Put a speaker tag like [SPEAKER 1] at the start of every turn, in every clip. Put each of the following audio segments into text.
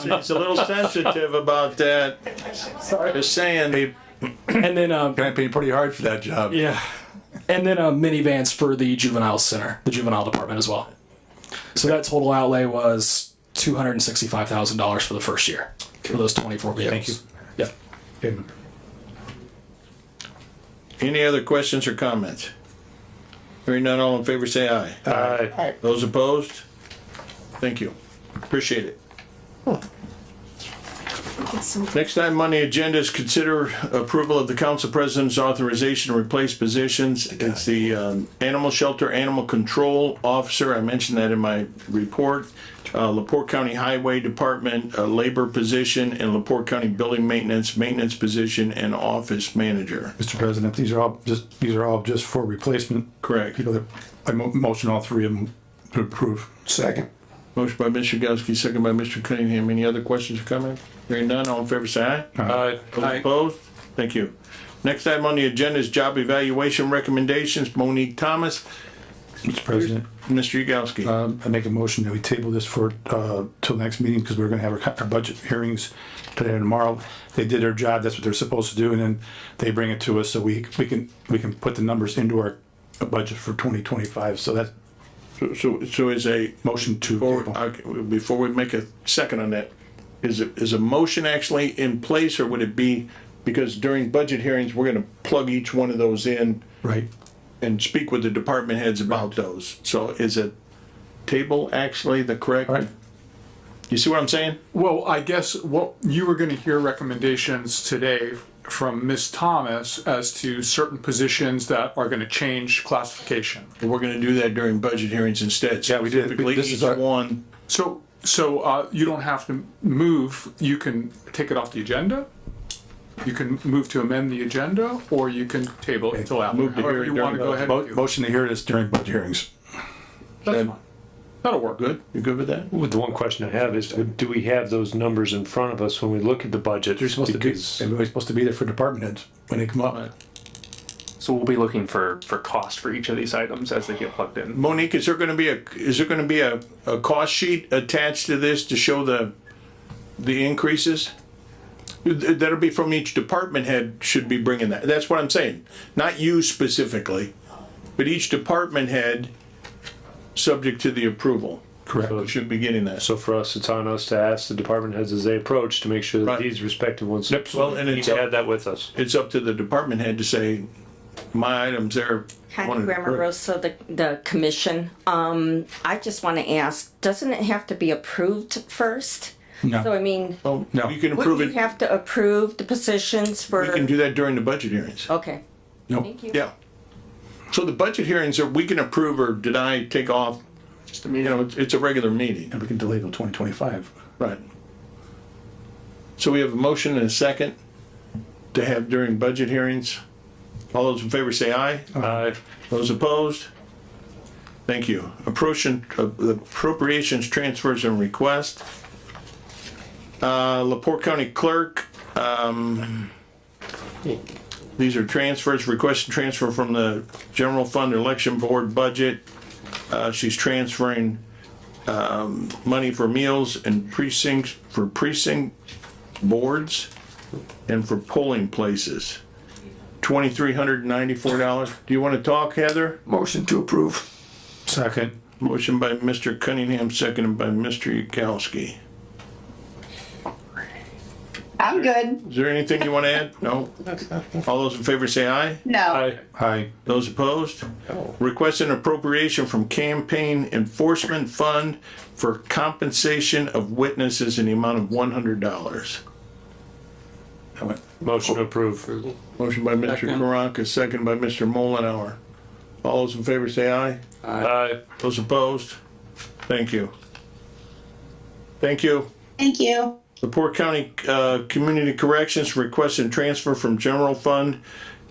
[SPEAKER 1] He's a little sensitive about that.
[SPEAKER 2] Sorry.
[SPEAKER 1] Just saying, he-
[SPEAKER 2] And then, um,
[SPEAKER 3] Gonna pay pretty hard for that job.
[SPEAKER 2] yeah. And then uh, minivans for the juvenile center, the juvenile department as well. So that total outlay was two hundred and sixty-five thousand dollars for the first year for those twenty-four vehicles. Yeah.
[SPEAKER 1] any other questions or comments? Hearing none, all in favor, say aye.
[SPEAKER 4] Aye.
[SPEAKER 1] Those opposed? Thank you. Appreciate it. Next item on the agenda is consider approval of the council president's authorization to replace positions. It's the um, animal shelter, animal control officer. I mentioned that in my report. Uh, Laporte County Highway Department, uh, labor position, and Laporte County Building Maintenance, maintenance position, and office manager.
[SPEAKER 4] Mr. President, these are all just, these are all just for replacement.
[SPEAKER 1] Correct.
[SPEAKER 4] People that, I mo- motion all three of them to approve.
[SPEAKER 5] Second.
[SPEAKER 1] Motion by Mr. Yagowski, second by Mr. Cunningham. Any other questions or comments? Hearing none, all in favor, say aye.
[SPEAKER 4] Aye.
[SPEAKER 1] Those Opposed? Thank you. Next item on the agenda is job evaluation recommendations. Monique Thomas,
[SPEAKER 4] Mr. President,
[SPEAKER 1] Mr. Yagowski.
[SPEAKER 4] um, I make a motion that we table this for, uh, till next meeting because we're gonna have our, co- our budget hearings today and tomorrow. They did their job, that's what they're supposed to do, and then they bring it to us so we, we can, we can put the numbers into our budget for twenty twenty-five. So that
[SPEAKER 1] So, so is a,
[SPEAKER 4] motion to
[SPEAKER 1] or-
[SPEAKER 4] table.
[SPEAKER 1] okay, before we make a second on that, is, it- is a motion actually in place or would it be, because during budget hearings, we're gonna plug each one of those in
[SPEAKER 4] Right.
[SPEAKER 1] and speak with the department heads about those. So is it table actually the correct?
[SPEAKER 4] All right.
[SPEAKER 1] You see what I'm saying?
[SPEAKER 6] Well, I guess what you were gonna hear recommendations today from Ms. Thomas as to certain positions that are gonna change classification.
[SPEAKER 1] We're gonna do that during budget hearings instead.
[SPEAKER 4] Yeah, we did.
[SPEAKER 1] Specifically,
[SPEAKER 4] This is
[SPEAKER 1] each
[SPEAKER 4] our-
[SPEAKER 1] one.
[SPEAKER 6] So, so, uh, you don't have to move, you can take it off the agenda. You can move to amend the agenda, or you can table it until after,
[SPEAKER 1] Move to
[SPEAKER 6] however you
[SPEAKER 1] hearing
[SPEAKER 6] wanna
[SPEAKER 1] during
[SPEAKER 6] go ahead
[SPEAKER 4] Mo-
[SPEAKER 6] and do.
[SPEAKER 4] Motion to hear this during budget hearings.
[SPEAKER 6] That's fine. That'll work.
[SPEAKER 1] Good? You good with that?
[SPEAKER 7] Well, the one question I have is, do we have those numbers in front of us when we look at the budget?
[SPEAKER 4] They're supposed to be,
[SPEAKER 7] Because-
[SPEAKER 4] everybody's supposed to be there for department heads when they come up.
[SPEAKER 8] So we'll be looking for, for cost for each of these items as they get plugged in.
[SPEAKER 1] Monique, is there gonna be a, is there gonna be a, a cost sheet attached to this to show the, the increases? Th- That'll be from each department head should be bringing that. That's what I'm saying. Not you specifically, but each department head, subject to the approval,
[SPEAKER 4] Correct.
[SPEAKER 1] should be getting that.
[SPEAKER 7] So for us, it's on us to ask the department heads as they approach to make sure
[SPEAKER 1] Right.
[SPEAKER 7] that these respective ones.
[SPEAKER 1] Well, and
[SPEAKER 7] Need
[SPEAKER 1] it's
[SPEAKER 7] to
[SPEAKER 1] up-
[SPEAKER 7] have that with us.
[SPEAKER 1] It's up to the department head to say, my items there.
[SPEAKER 9] Patty Grammar Rosa, the, the commission, um, I just wanna ask, doesn't it have to be approved first? So I
[SPEAKER 4] No,
[SPEAKER 9] mean,
[SPEAKER 1] Oh,
[SPEAKER 4] No.
[SPEAKER 1] You can approve
[SPEAKER 9] wouldn't you
[SPEAKER 1] it.
[SPEAKER 9] have to approve the positions
[SPEAKER 1] We can
[SPEAKER 9] for,
[SPEAKER 1] do that during the budget hearings.
[SPEAKER 9] okay,
[SPEAKER 4] no,
[SPEAKER 9] thank you.
[SPEAKER 1] Yeah. So the budget hearings are, we can approve or deny, take off. You know, it's, it's a regular meeting.
[SPEAKER 4] and we can delay till twenty twenty-five.
[SPEAKER 1] Right. So we have a motion and a second to have during budget hearings. All those in favor say aye.
[SPEAKER 7] Uh,
[SPEAKER 1] Those opposed? Thank you. Appropriation, uh, appropriations, transfers and requests. Uh, Laporte County Clerk, um, these are transfers, request to transfer from the general fund election board budget. Uh, she's transferring, um, money for meals and precincts, for precinct boards and for polling places. Twenty-three hundred and ninety-four dollars. Do you want to talk, Heather?
[SPEAKER 5] Motion to approve.
[SPEAKER 4] Second.
[SPEAKER 1] Motion by Mr. Cunningham, seconded by Mr. Yagowski.
[SPEAKER 10] I'm good.
[SPEAKER 1] Is there anything you want to add? No? All those in favor say aye.
[SPEAKER 10] No.
[SPEAKER 4] Aye.
[SPEAKER 1] Those opposed? Request an appropriation from Campaign Enforcement Fund for compensation of witnesses in the amount of one hundred dollars.
[SPEAKER 7] motion to approve.
[SPEAKER 1] Motion by Mr. Karanka, seconded by Mr. Mullenhour. All those in favor say aye.
[SPEAKER 7] Uh,
[SPEAKER 1] Those opposed? Thank you. Thank you.
[SPEAKER 10] Thank you.
[SPEAKER 1] Laporte County uh, Community Corrections requests and transfer from general fund,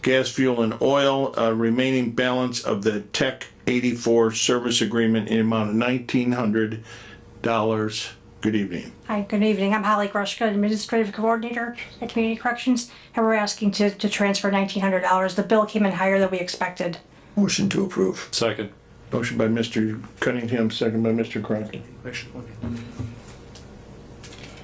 [SPEAKER 1] gas, fuel, and oil, uh, remaining balance of the Tech 84 service agreement in amount of $1,900. Good evening.
[SPEAKER 11] Hi, good evening. I'm Holly Grushka, Administrative Coordinator at Community Corrections, and we're asking to, to transfer $1,900. The bill came in higher than we expected.
[SPEAKER 5] Motion to approve.
[SPEAKER 7] second.
[SPEAKER 1] Motion by Mr. Cunningham, second by Mr. Crockett.